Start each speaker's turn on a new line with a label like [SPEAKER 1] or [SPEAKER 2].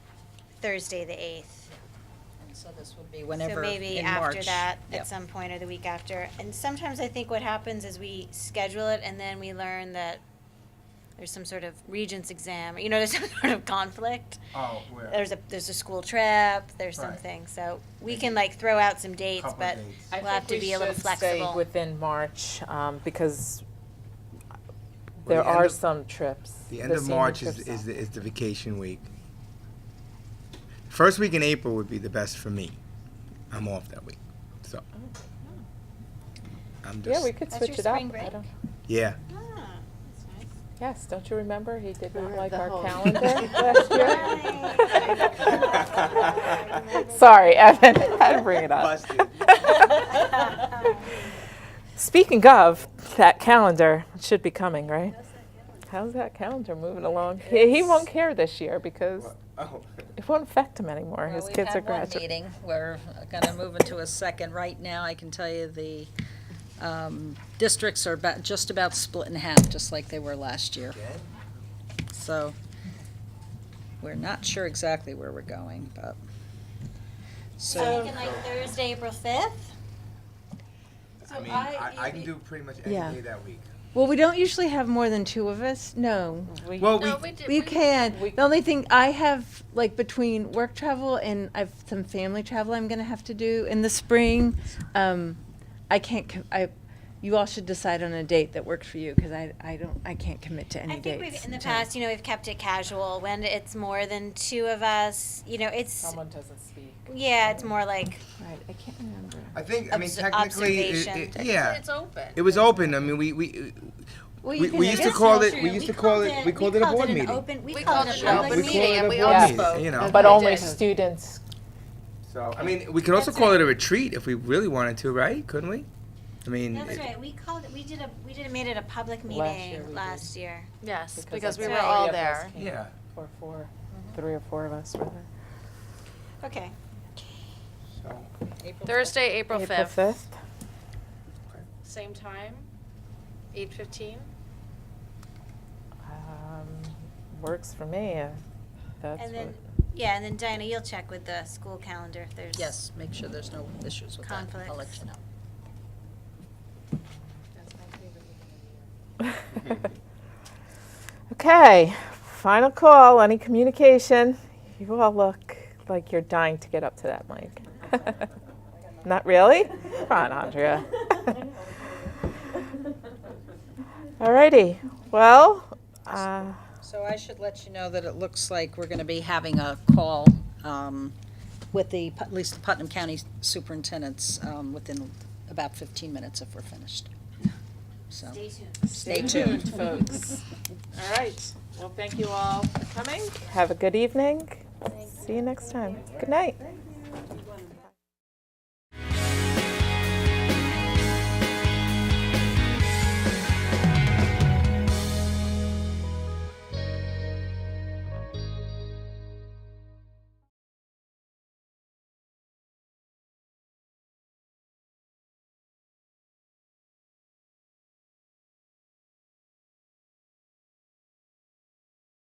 [SPEAKER 1] Thursday, the eighth.
[SPEAKER 2] And so this would be whenever
[SPEAKER 1] So maybe
[SPEAKER 2] in
[SPEAKER 1] after
[SPEAKER 2] March.
[SPEAKER 1] that,
[SPEAKER 2] Yep.
[SPEAKER 1] at some point or the week after. And sometimes I think what happens is we schedule it and then we learn that there's some sort of regents exam, you know, there's some sort of conflict.
[SPEAKER 3] Oh, where?
[SPEAKER 1] There's a, there's a school trip, there's
[SPEAKER 3] Right.
[SPEAKER 1] something, so we can like throw out some dates,
[SPEAKER 3] Couple
[SPEAKER 1] but
[SPEAKER 3] dates.
[SPEAKER 4] I
[SPEAKER 1] we'll have
[SPEAKER 4] think
[SPEAKER 1] to
[SPEAKER 4] we
[SPEAKER 1] be a little
[SPEAKER 4] should stay
[SPEAKER 1] flexible.
[SPEAKER 4] within March, um, because
[SPEAKER 3] Well,
[SPEAKER 4] there
[SPEAKER 3] the end
[SPEAKER 4] are
[SPEAKER 3] of-
[SPEAKER 4] some trips.
[SPEAKER 3] The end of
[SPEAKER 4] senior
[SPEAKER 3] March
[SPEAKER 4] trips
[SPEAKER 3] is,
[SPEAKER 4] are-
[SPEAKER 3] is, the, is the vacation week. First week in April would be the best for me. I'm off that week, so. I'm
[SPEAKER 4] Yeah,
[SPEAKER 3] just,
[SPEAKER 4] we could
[SPEAKER 1] That's your
[SPEAKER 4] switch it up.
[SPEAKER 1] spring
[SPEAKER 4] I
[SPEAKER 1] break.
[SPEAKER 4] don't-
[SPEAKER 3] yeah,
[SPEAKER 1] Ah, that's nice.
[SPEAKER 4] Yes, don't you remember? He did not
[SPEAKER 5] Remember
[SPEAKER 4] like
[SPEAKER 5] the
[SPEAKER 4] our
[SPEAKER 5] whole-
[SPEAKER 4] calendar
[SPEAKER 3] Right.
[SPEAKER 4] last year. Sorry, Evan, I had to bring it up.
[SPEAKER 3] Busted.
[SPEAKER 4] Speaking of, that calendar should be coming, right? How's that calendar moving along? He, he won't care this year because
[SPEAKER 3] oh,
[SPEAKER 4] it won't affect him anymore.
[SPEAKER 2] Well,
[SPEAKER 4] His
[SPEAKER 2] we've
[SPEAKER 4] kids
[SPEAKER 2] had
[SPEAKER 4] are
[SPEAKER 2] one
[SPEAKER 4] graduating.
[SPEAKER 2] meeting. We're gonna move into a second. Right now, I can tell you the, um, districts are about, just about split in half, just like they were last year. So, we're not sure exactly where we're going, but.
[SPEAKER 1] So
[SPEAKER 2] So,
[SPEAKER 1] thinking like Thursday, April fifth?
[SPEAKER 3] I mean, I, I can do pretty much any
[SPEAKER 5] Yeah.
[SPEAKER 3] day that week.
[SPEAKER 5] Well, we don't usually have more than two of us. No,
[SPEAKER 3] Well, we,
[SPEAKER 5] we can. The only thing I have, like, between work travel and I've some family travel I'm gonna have to do in the spring. Um, I can't. Com- I, you all should decide on a date that works for you because I, I don't, I can't commit to any
[SPEAKER 1] I think we've,
[SPEAKER 5] dates.
[SPEAKER 1] in the
[SPEAKER 5] until-
[SPEAKER 1] past, you know, we've kept it casual. When it's more than two of us, you know, it's,
[SPEAKER 4] Someone doesn't speak.
[SPEAKER 1] yeah, it's more like,
[SPEAKER 5] Right, I can't remember.
[SPEAKER 3] I think, I mean,
[SPEAKER 1] Obs-
[SPEAKER 3] technically, it-
[SPEAKER 1] observation.
[SPEAKER 3] it- yeah,
[SPEAKER 6] It's open.
[SPEAKER 3] it was open. I mean, we, we,
[SPEAKER 5] Well,
[SPEAKER 3] we, we used to call it, we used to call it, we called it a board
[SPEAKER 1] an
[SPEAKER 3] meeting.
[SPEAKER 1] open- We
[SPEAKER 6] We
[SPEAKER 1] called it a public
[SPEAKER 3] We
[SPEAKER 1] meeting.
[SPEAKER 3] called
[SPEAKER 6] meeting,
[SPEAKER 3] it a
[SPEAKER 6] and we
[SPEAKER 3] board
[SPEAKER 4] all
[SPEAKER 3] meeting,
[SPEAKER 6] spoke.
[SPEAKER 3] You know.
[SPEAKER 4] But
[SPEAKER 6] They
[SPEAKER 4] only
[SPEAKER 6] did.
[SPEAKER 4] students.
[SPEAKER 3] So, I mean, we could also
[SPEAKER 1] That's
[SPEAKER 3] call
[SPEAKER 1] right.
[SPEAKER 3] it a retreat if we really wanted to, right? Couldn't we? I mean,
[SPEAKER 1] That's
[SPEAKER 3] it-
[SPEAKER 1] right, we called it, we did a, we did, made it a public
[SPEAKER 4] Last year we
[SPEAKER 1] meeting
[SPEAKER 4] did.
[SPEAKER 1] last year.
[SPEAKER 6] Yes,
[SPEAKER 4] because
[SPEAKER 6] because we
[SPEAKER 1] that's
[SPEAKER 6] were
[SPEAKER 1] right.
[SPEAKER 6] all there.
[SPEAKER 3] yeah.
[SPEAKER 4] Or four, Mm-hmm. three or four of us were there.
[SPEAKER 1] Okay.
[SPEAKER 3] So,
[SPEAKER 6] Thursday, April
[SPEAKER 4] April
[SPEAKER 6] fifth.
[SPEAKER 4] fifth.
[SPEAKER 6] Same time, eight fifteen.
[SPEAKER 4] Um, works for me. uh, That's
[SPEAKER 1] And then,
[SPEAKER 4] what-
[SPEAKER 1] yeah, and then Diana, you'll check with the school calendar if there's.
[SPEAKER 2] yes, make sure there's no issues with that. I'll let you know.
[SPEAKER 4] Okay, final call, any communication? You all look like you're dying to get up to that mic. Not really? Come on, Andrea. Alrighty, well, uh,
[SPEAKER 2] So I should let you know that it looks like we're gonna be having a call um, with the, Put- at least the Putnam County superintendents um, within about 15 minutes if we're finished. So,
[SPEAKER 1] Stay tuned.
[SPEAKER 2] stay tuned.
[SPEAKER 4] folks.
[SPEAKER 7] All right, well, thank you all for coming.
[SPEAKER 4] Have a good evening. See you next time. Good night.